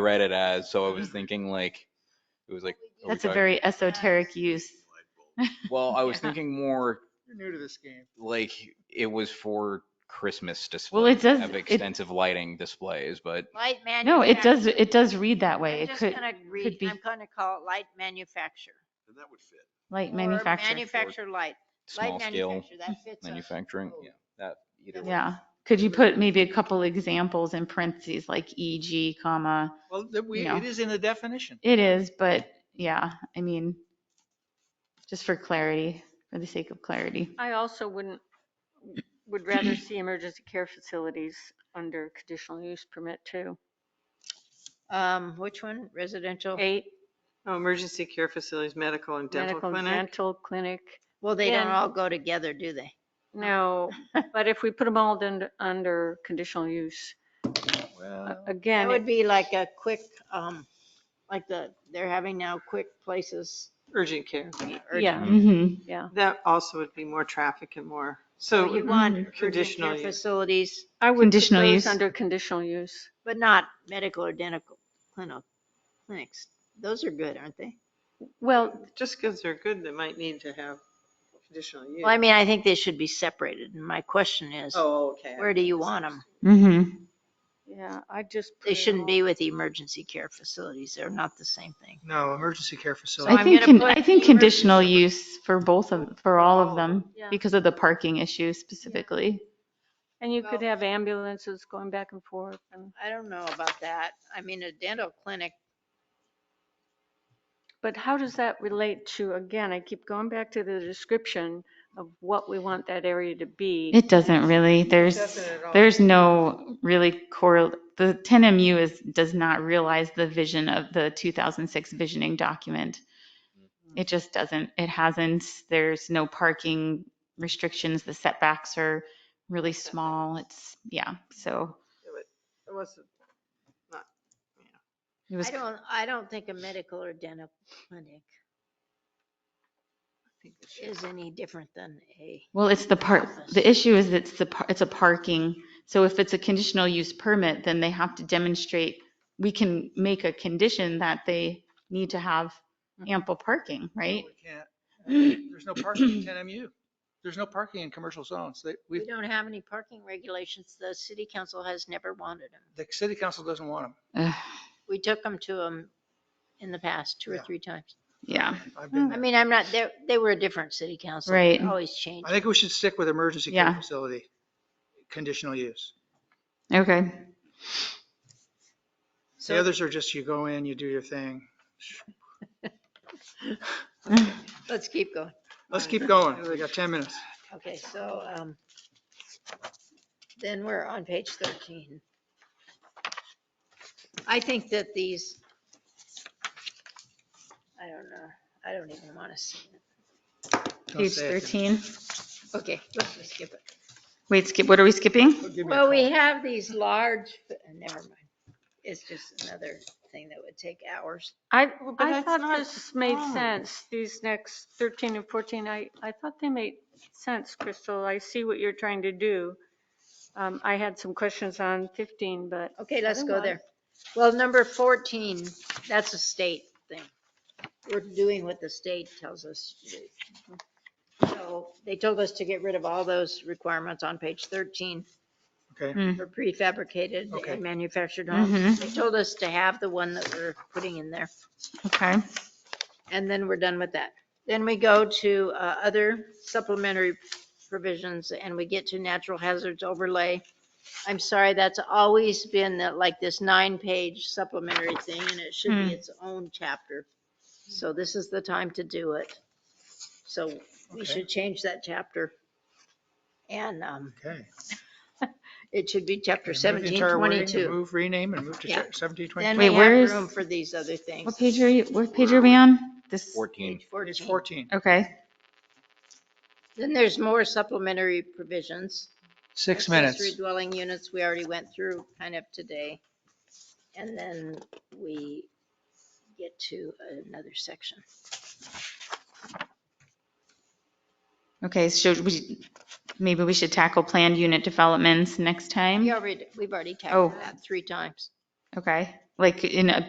read it as, so I Mm-hmm. was thinking like, it was like. are we That's a talking- very esoteric use. Well, I was Yeah. thinking more You're new to this game. like it was for Christmas display. Well, it does- Have it- extensive lighting displays, but Light manufacturer. No, it does, it does read that way. I'm It just could, gonna read- be- I'm gonna call it light manufacture. And that would fit. like or manufacturer. Manufacture light, light small scale manufacture, that fits us. Oh, manufacturing, yeah, that either way. Oh. Yeah. Could you put maybe a couple examples in parentheses, like EG, comma? Well, that we, No. it is in the definition. It is, but yeah, I mean, just for clarity, for the sake of clarity. I also wouldn't, would rather see emergency care facilities under conditional use permit too. Um, which one? Residential? Eight, Oh, emergency care facilities, medical and dental medical clinic. dental clinic. Well, they don't And- all go together, do they? Oh. No, but if we put them all in, under conditional use, a- That again, would it- be like a quick, um, like the, they're having now quick places. Urgent care. urgent. yeah, Mm-hmm. yeah. That also would be more traffic and more, So so you mm, want urgent conditional care use. facilities, I would put Conditional those use. Under conditional use. but not medical or dental clinic, clinics. Those are good, aren't they? Well, just because they're good, they might need to have additional use. Well, I mean, I think they should be separated. And my question is, Oh, okay. where do you want them? Mm-hmm. yeah, I just. put They it shouldn't all- be with emergency care facilities. They're not the same thing. No, emergency care So facility. I I'm think, gonna con- put E I think the conditional use for both of, for all all of of Oh, them, yeah. because of the parking issue specifically. And you could Well- have ambulances going back and forth and, I don't know about that. I mean, a dental clinic, but how does that relate to, again, I keep going back to the description of what we want that area to be. It doesn't really, there's, Doesn't at all. there's no really correl, the 10MU is, does not realize the vision of the 2006 visioning document. It just doesn't, it hasn't, there's no parking restrictions, the setbacks are really small, it's, yeah, so It wasn't- I it was, don't, I don't think a medical or dental clinic I think it should- is any different than a, well, it's the part, Office. the issue is it's the, par- it's a parking, so if it's a conditional use permit, then they have to demonstrate, we can make a condition that they need to have ample parking, right? We can't- There's no parking in ten MU. There's no parking in commercial zones. They, we we, don't have any parking regulations. The city council has never wanted them. the city council doesn't want Ugh, We took them to them in the past, two or Yeah. three times. Yeah, them. I've been I there. mean, I'm not, they, they were a different city council. Right. They Always changed. I think we should stick with emergency care Yeah. facility, conditional use. okay. The others are just you go in, you do your thing. Let's keep going. Let's keep going. We got ten minutes. Okay, so, um, then we're on page thirteen. I think that these, I don't know, I don't even want to see it. Don't Page say it. 13. Okay, let's just skip it. Wait, skip, what are we skipping? Give me a Well, call. we have these large, never mind. It's just another thing that would take hours. I, Well, but oh. I that's thought not this made wrong. sense, these next 13 and 14, I, I thought they made sense, Crystal. I see what you're trying to do. Um, I had some questions on 15, but Okay, let's go Otherwise- there. Well, number fourteen, that's a state thing. We're doing what the state tells us to do. So they told us to get rid of all those requirements on page thirteen Okay, for prefabricated Okay. and manufactured Mhm. homes. They told us to have the one that we're putting in there, Okay, and then we're done with that. Then we go to uh, other supplementary provisions, and we get to natural hazards overlay. I'm sorry, that's always been that, like this nine-page supplementary thing, and it should Hmm. be its own chapter. So this is the time to do it. So we Okay. should change that chapter. And um, okay. it should be chapter Okay, move the seventeen entire wording to twenty-two. Move, rename, and move to Yeah. seventeen Then twenty-two. we Wait, where have is- room for these other things. what page are you, what page are we on? This, fourteen. Page It's 14. fourteen. okay, Then there's more supplementary provisions. Six Accessory minutes. dwelling units, we already went through kind of today. And then we get to another section. okay, so we, maybe we should tackle planned unit developments next time? We already, we've already tackled Oh. that three times. Okay, like in a